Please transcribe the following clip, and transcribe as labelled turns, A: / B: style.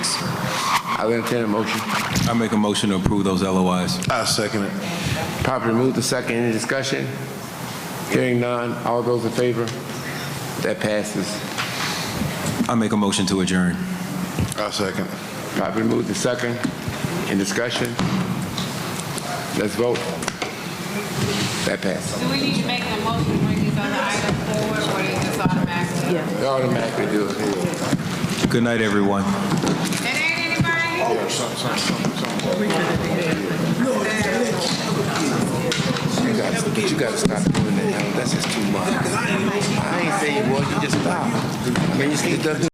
A: I'll entertain a motion.
B: I make a motion to approve those LOIs.
C: I second it.
A: Properly moved to second. Any discussion? Hearing none. All those in favor? That passes.
B: I make a motion to adjourn.
C: I second.
A: Properly moved to second. In discussion? Let's vote. That passes.
D: Do we need to make a motion to bring these other items forward, or is this automatic? Yeah.
A: They automatically do it.
B: Good night, everyone.
D: It ain't anybody?
A: You gotta, but you gotta stop doing that. That's just too much. I ain't saying, well, you just stop. I mean, you see, it doesn't